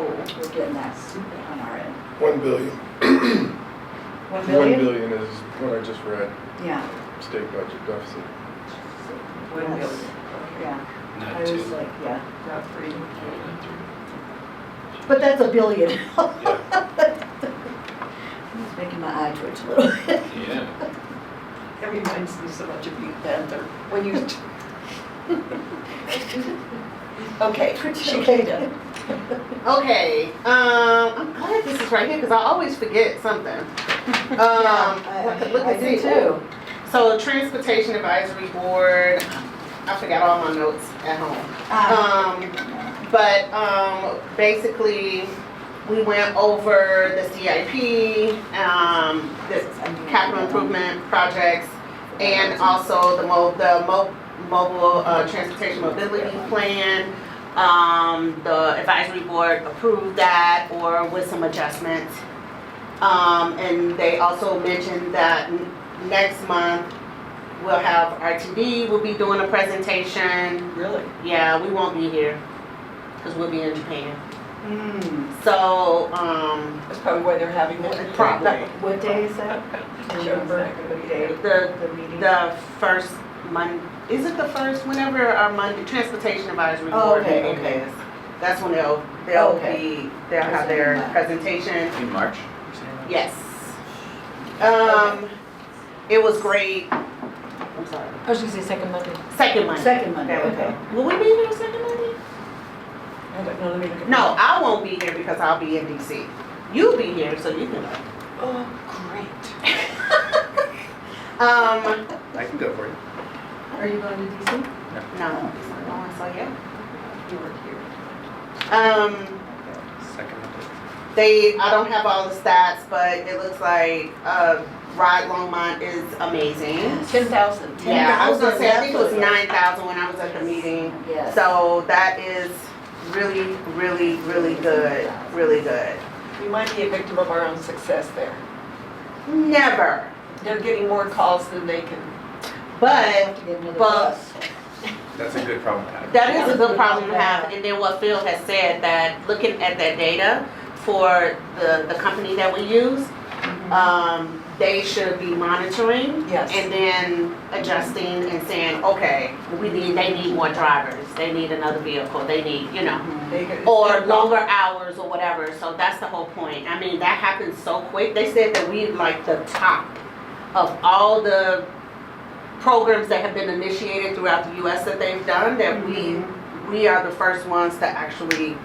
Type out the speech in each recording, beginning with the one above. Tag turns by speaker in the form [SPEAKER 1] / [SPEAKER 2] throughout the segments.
[SPEAKER 1] Oh,
[SPEAKER 2] we're getting that super on our end.
[SPEAKER 3] One billion.
[SPEAKER 2] One
[SPEAKER 4] One
[SPEAKER 2] million?
[SPEAKER 4] billion is what I just read,
[SPEAKER 2] Yeah.
[SPEAKER 4] state budget deficit.
[SPEAKER 1] One
[SPEAKER 2] Yes.
[SPEAKER 1] million.
[SPEAKER 2] Yeah, I
[SPEAKER 5] Not
[SPEAKER 2] was
[SPEAKER 5] two.
[SPEAKER 2] like, yeah,
[SPEAKER 1] Not three.
[SPEAKER 5] Not three.
[SPEAKER 2] but that's a billion.
[SPEAKER 5] Yeah.
[SPEAKER 2] I was making my eye twitch a little bit.
[SPEAKER 5] Yeah.
[SPEAKER 1] That reminds me so much of Pink Panther, when you. Okay,
[SPEAKER 6] Um,
[SPEAKER 1] Chiquita.
[SPEAKER 6] Okay, um, I'm glad this is right here because I always forget something. Um, I could look and see. So transportation advisory board, I forgot all my notes at home.
[SPEAKER 2] Ah,
[SPEAKER 6] Um, but, um, basically, we went over the CIP, um, the
[SPEAKER 2] I knew
[SPEAKER 6] capital
[SPEAKER 2] that one.
[SPEAKER 6] improvement projects, and also the mo, the mo, mobile, uh, transportation mobility plan. Um, the advisory board approved that or with some adjustments. Um, and they also mentioned that n- next month, we'll have RTD, we'll be doing a presentation.
[SPEAKER 1] Really?
[SPEAKER 6] Yeah, we won't be here, cause we'll be in Japan.
[SPEAKER 2] Hmm,
[SPEAKER 6] So, um,
[SPEAKER 1] That's probably why they're having that.
[SPEAKER 6] Probably.
[SPEAKER 2] what day is that? Can you remember what day
[SPEAKER 6] the
[SPEAKER 2] the meeting?
[SPEAKER 6] The first Mon, is it the first, whenever our Monday, Transportation Advisory
[SPEAKER 2] Oh,
[SPEAKER 6] Board
[SPEAKER 2] okay,
[SPEAKER 6] meeting
[SPEAKER 2] okay. Oh,
[SPEAKER 6] is? That's when they'll, they'll
[SPEAKER 2] Okay.
[SPEAKER 6] be, they'll have their presentation,
[SPEAKER 5] In March, you're saying that?
[SPEAKER 6] yes. Um, it was great, I'm sorry,
[SPEAKER 7] I was gonna say second Monday.
[SPEAKER 6] second Monday.
[SPEAKER 2] Second Monday,
[SPEAKER 6] There we
[SPEAKER 2] okay.
[SPEAKER 6] go. Will we be here second Monday?
[SPEAKER 1] I don't know, let me look at.
[SPEAKER 6] No, I won't be here because I'll be in DC. You'll be here, so you can go.
[SPEAKER 1] Oh,
[SPEAKER 6] Um,
[SPEAKER 4] I can go for it.
[SPEAKER 2] Are you going to DC?
[SPEAKER 6] no, it's not going, so yeah.
[SPEAKER 1] great. You were here.
[SPEAKER 6] Um,
[SPEAKER 5] Second.
[SPEAKER 6] They, I don't have all the stats, but it looks like uh, Rod Longmont is amazing.
[SPEAKER 2] Ten thousand.
[SPEAKER 6] Yeah, I was gonna say, I think it was nine thousand when I was at the meeting.
[SPEAKER 2] Yes.
[SPEAKER 6] So that is really, really, really good, really good.
[SPEAKER 1] We might be a victim of our own success there.
[SPEAKER 6] Never,
[SPEAKER 1] They're getting more calls than they can.
[SPEAKER 6] but
[SPEAKER 2] To get another
[SPEAKER 6] but-
[SPEAKER 2] bus.
[SPEAKER 4] That's a good problem to have.
[SPEAKER 6] that is a good problem to have. And then what Phil has said, that looking at that data for the, the company that we use, um, they should be monitoring
[SPEAKER 1] Yes.
[SPEAKER 6] And then adjusting and saying, okay, we need, they need more drivers, they need another vehicle, they need, you know,
[SPEAKER 1] They get-
[SPEAKER 6] or longer hours or whatever, so that's the whole point. I mean, that happens so quick. They said that we like the top of all the programs that have been initiated throughout the US that they've done, that we, we are the first ones to actually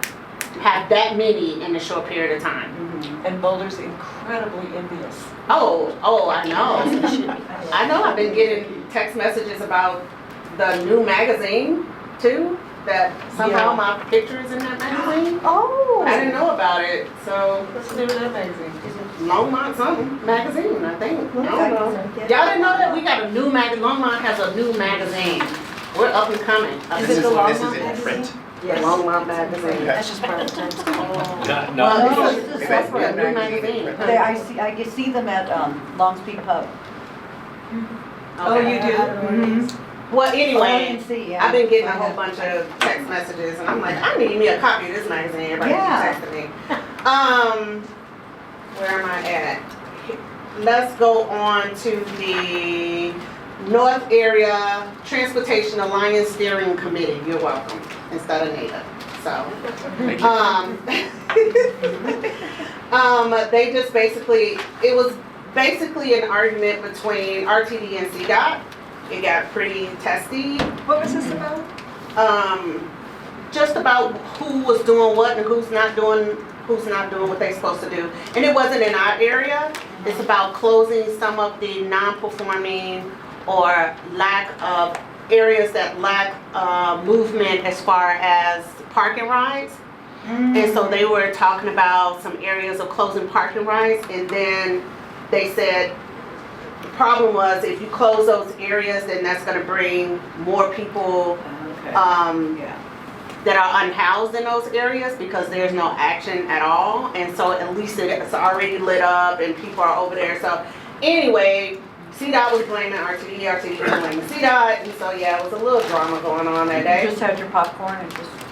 [SPEAKER 6] have that many in a short period of time.
[SPEAKER 2] Mhm.
[SPEAKER 1] And Boulder's incredibly envious.
[SPEAKER 6] Oh, oh, I know. I know I've been getting text messages about the new magazine too, that somehow
[SPEAKER 1] Yeah.
[SPEAKER 6] my picture is in that magazine.
[SPEAKER 1] Oh.
[SPEAKER 6] I didn't know about it, so
[SPEAKER 1] What's the name of that magazine?
[SPEAKER 6] Longmont something magazine, I think. I don't know.
[SPEAKER 2] Yeah.
[SPEAKER 6] Y'all didn't know that we got a new magazine, Longmont has a new magazine. We're up and coming. Up
[SPEAKER 5] This is,
[SPEAKER 6] and-
[SPEAKER 5] this is in print.
[SPEAKER 6] Longmont magazine. Oh,
[SPEAKER 7] That's just part of the time.
[SPEAKER 5] No,
[SPEAKER 6] Well,
[SPEAKER 5] no.
[SPEAKER 2] no.
[SPEAKER 6] this is,
[SPEAKER 2] Oh, It's
[SPEAKER 6] this
[SPEAKER 2] a
[SPEAKER 6] is a
[SPEAKER 2] separate
[SPEAKER 6] new magazine.
[SPEAKER 2] They, I see, I can see them at, um, Longspeed Pub.
[SPEAKER 1] Oh, you do? Mm-hmm. Oh,
[SPEAKER 6] Well,
[SPEAKER 2] Oh, I
[SPEAKER 6] anyway,
[SPEAKER 2] can see, yeah.
[SPEAKER 6] I've been getting a whole bunch of text messages and I'm like, I need me a copy of this magazine, everybody keeps
[SPEAKER 2] Yeah.
[SPEAKER 6] texting me. Um, where am I at? Let's go on to the North Area Transportation Alliance Steering Committee, you're welcome, instead of NADA, so.
[SPEAKER 5] Thank you.
[SPEAKER 6] Um, um, they just basically, it was basically an argument between RTD and CDOT. It got pretty testy,
[SPEAKER 1] What was this about?
[SPEAKER 6] um, just about who was doing what and who's not doing, who's not doing what they're supposed to do. And it wasn't in our area, it's about closing some of the non-performing or lack of, areas that lack, uh, movement as far as park and rides. And so they were talking about some areas of closing parking rights, and then they said, the problem was if you close those areas, then that's gonna bring more people,
[SPEAKER 2] Okay.
[SPEAKER 6] um,
[SPEAKER 2] Yeah.
[SPEAKER 6] that are unhoused in those areas because there's no action at all. And so at least it's already lit up and people are over there. So anyway, CDOT was blaming E RTD, RTD was blaming CDOT, and so yeah, it was a little drama going on that
[SPEAKER 2] You
[SPEAKER 6] day.
[SPEAKER 2] just had your popcorn and just